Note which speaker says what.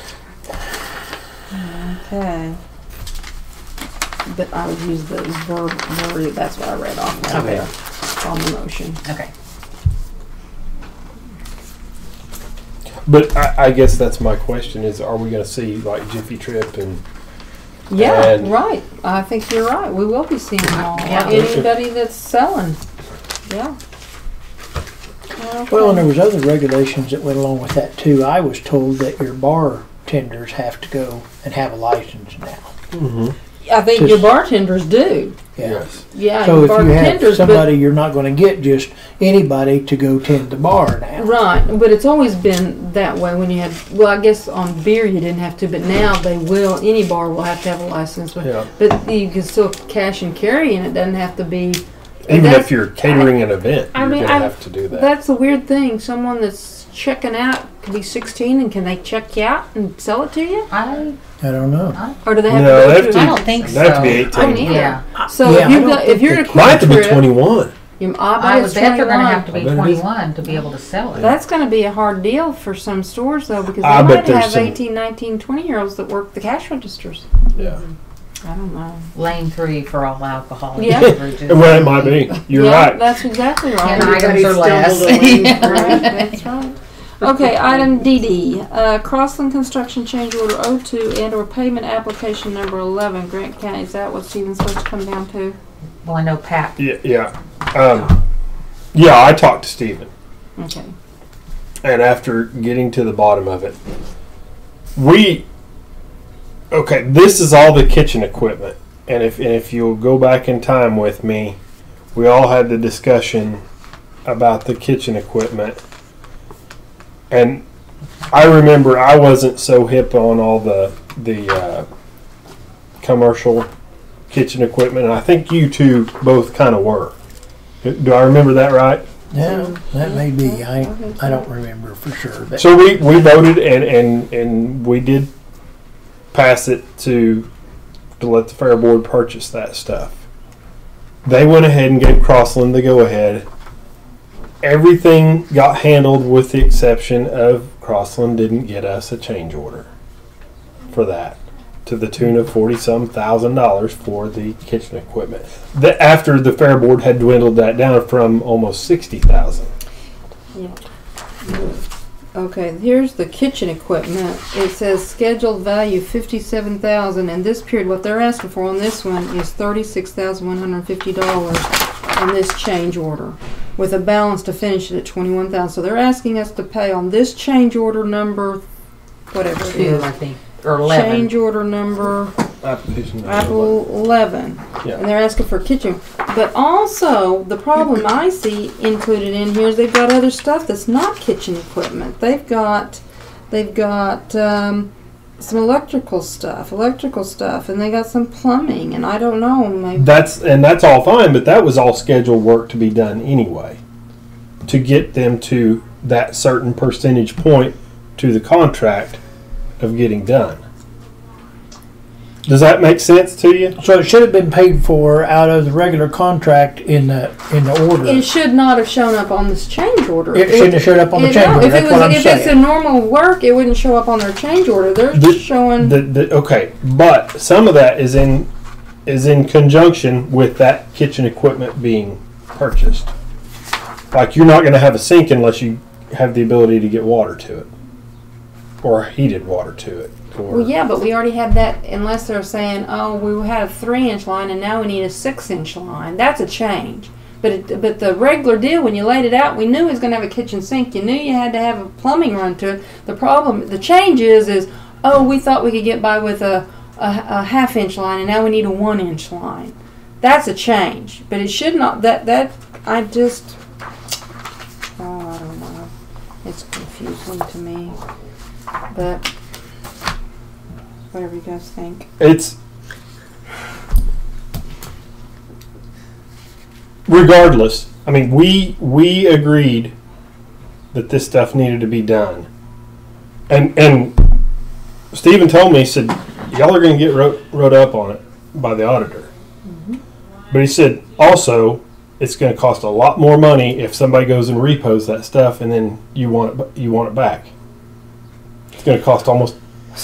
Speaker 1: Okay. But I would use the verb, verb, that's what I read off right
Speaker 2: Okay.
Speaker 1: there on the motion.
Speaker 2: Okay.
Speaker 3: But I, I guess that's my question: Is are we going to see like Jiffy Trip and
Speaker 1: Yeah,
Speaker 3: And-
Speaker 1: right. I think you're right. We will be seeing all,
Speaker 2: Yeah.
Speaker 1: anybody that's selling. Yeah.
Speaker 4: Well, and there was other regulations that went along with that too. I was told that your bartenders have to go and have a license now.
Speaker 1: I think your bartenders do.
Speaker 3: yes,
Speaker 1: Yeah, your
Speaker 4: So if you have
Speaker 1: bartenders,
Speaker 4: somebody, you're not going to get just anybody to go tend the bar
Speaker 1: but,
Speaker 4: now.
Speaker 1: right. But it's always been that way when you had, well, I guess on beer you didn't have to, but now they will, any bar will have to have a license. But,
Speaker 3: Yeah.
Speaker 1: but you can still cash and carry and it doesn't have to be.
Speaker 3: even
Speaker 1: That's-
Speaker 3: if you're catering an event,
Speaker 1: I
Speaker 3: you're
Speaker 1: mean,
Speaker 3: going to
Speaker 1: I-
Speaker 3: have to do that.
Speaker 1: That's a weird thing. Someone that's checking out could be 16 and can they check you out and sell it to you?
Speaker 2: I
Speaker 4: I don't know.
Speaker 1: Or do they have
Speaker 3: No,
Speaker 1: to
Speaker 3: they
Speaker 1: go
Speaker 3: have
Speaker 1: through
Speaker 3: to-
Speaker 1: a
Speaker 2: I don't think
Speaker 3: They
Speaker 2: so.
Speaker 3: have to be
Speaker 1: I
Speaker 3: 18.
Speaker 1: don't either.
Speaker 2: Yeah.
Speaker 1: So
Speaker 4: Yeah,
Speaker 1: if
Speaker 4: I
Speaker 1: you've
Speaker 4: don't
Speaker 1: got,
Speaker 4: think
Speaker 1: if you're
Speaker 4: they
Speaker 1: in a
Speaker 3: Might have to
Speaker 1: quick
Speaker 3: be
Speaker 1: trip,
Speaker 3: 21.
Speaker 1: you, I bet
Speaker 2: I would
Speaker 1: it's
Speaker 2: bet they're going to have to
Speaker 1: 21.
Speaker 2: be
Speaker 3: I bet it is.
Speaker 2: 21 to be able to sell it.
Speaker 1: That's going to be a hard deal for some stores though, because they
Speaker 3: I bet
Speaker 1: might
Speaker 3: there's
Speaker 1: have
Speaker 3: some-
Speaker 1: 18, 19, 20 year olds that work the cash registers.
Speaker 3: Yeah.
Speaker 1: I don't know.
Speaker 2: Lane three for all alcohol
Speaker 1: Yeah.
Speaker 2: beverages.
Speaker 3: Well, it might be. You're
Speaker 1: Yeah,
Speaker 3: right.
Speaker 1: That's exactly right.
Speaker 2: Ten items or
Speaker 1: Right,
Speaker 2: less.
Speaker 1: That's right. Okay, item DD, uh, Crossland Construction Change Order O two and or Payment Application Number eleven, Grant County. Is that what Stephen's supposed to come down to?
Speaker 2: Well, I know Pat.
Speaker 3: Yeah, yeah. Um, yeah, I talked to Steven.
Speaker 1: Okay.
Speaker 3: and after getting to the bottom of it, we okay. This is all the kitchen equipment, and if and if you'll go back in time with me, we all had the discussion about the kitchen equipment, and I remember I wasn't so hip on all the the uh, commercial kitchen equipment. And I think you two both kind of were. Do I remember that right?
Speaker 4: Yeah, that may be. I
Speaker 1: Okay.
Speaker 4: I don't remember for sure. But
Speaker 3: So we, we voted and, and, and we did pass it to to let the fair board purchase that stuff. They went ahead and gave Crossland the go ahead. Everything got handled with the exception of Crossland didn't get us a change order for that to the tune of forty some thousand dollars for the kitchen equipment. The, after the fair board had dwindled that down from almost sixty thousand.
Speaker 1: Okay, here's the kitchen equipment. It says scheduled value fifty-seven thousand, and this period, what they're asking for on this one is thirty-six thousand one hundred and fifty dollars on this change order, with a balance to finish it at twenty-one thousand. So they're asking us to pay on this change order number, whatever it
Speaker 2: Two, I
Speaker 1: is.
Speaker 2: think, or
Speaker 1: Change
Speaker 2: eleven.
Speaker 1: order number,
Speaker 3: Application.
Speaker 1: Apple eleven.
Speaker 3: Yeah.
Speaker 1: And they're asking for kitchen. But also, the problem I see included in here is they've got other stuff that's not kitchen equipment. They've got, they've got um, some electrical stuff, electrical stuff, and they got some plumbing, and I don't know, maybe.
Speaker 3: That's and that's all fine, but that was all scheduled work to be done anyway, to get them to that certain percentage point to the contract of getting done. Does that make sense to you?
Speaker 4: so it should have been paid for out of the regular contract in the in the order.
Speaker 1: It should not have shown up on this change order.
Speaker 4: It shouldn't have showed up on the
Speaker 1: it-
Speaker 4: change
Speaker 1: no,
Speaker 4: order.
Speaker 1: If, it
Speaker 4: That's what
Speaker 1: was,
Speaker 4: I'm
Speaker 1: if it's a
Speaker 4: saying.
Speaker 1: normal work, it wouldn't show up on their change order. They're
Speaker 3: The-
Speaker 1: just showing.
Speaker 3: The, the, okay, but some of that is in is in conjunction with that kitchen equipment being purchased. Like you're not going to have a sink unless you have the ability to get water to it, or heated water to it. Or,
Speaker 1: Well, yeah, but we already had that, unless they're saying, oh, we had a three inch line and now we need a six inch line. That's a change. But it, but the regular deal, when you laid it out, we knew it was going to have a kitchen sink. You knew you had to have a plumbing run to it. The problem, the change is, is, oh, we thought we could get by with a, a, a half inch line and now we need a one inch line. That's a change. But it should not, that, that, I just, oh, I don't know. It's confusing to me. But whatever you guys think.
Speaker 3: It's regardless. I mean, we we agreed that this stuff needed to be done, and and Stephen told me he said y'all are going to get wrote, wrote up on it by the auditor, but he said also it's going to cost a lot more money if somebody goes and repos that stuff and then you want it, b- you want it back. It's going to cost almost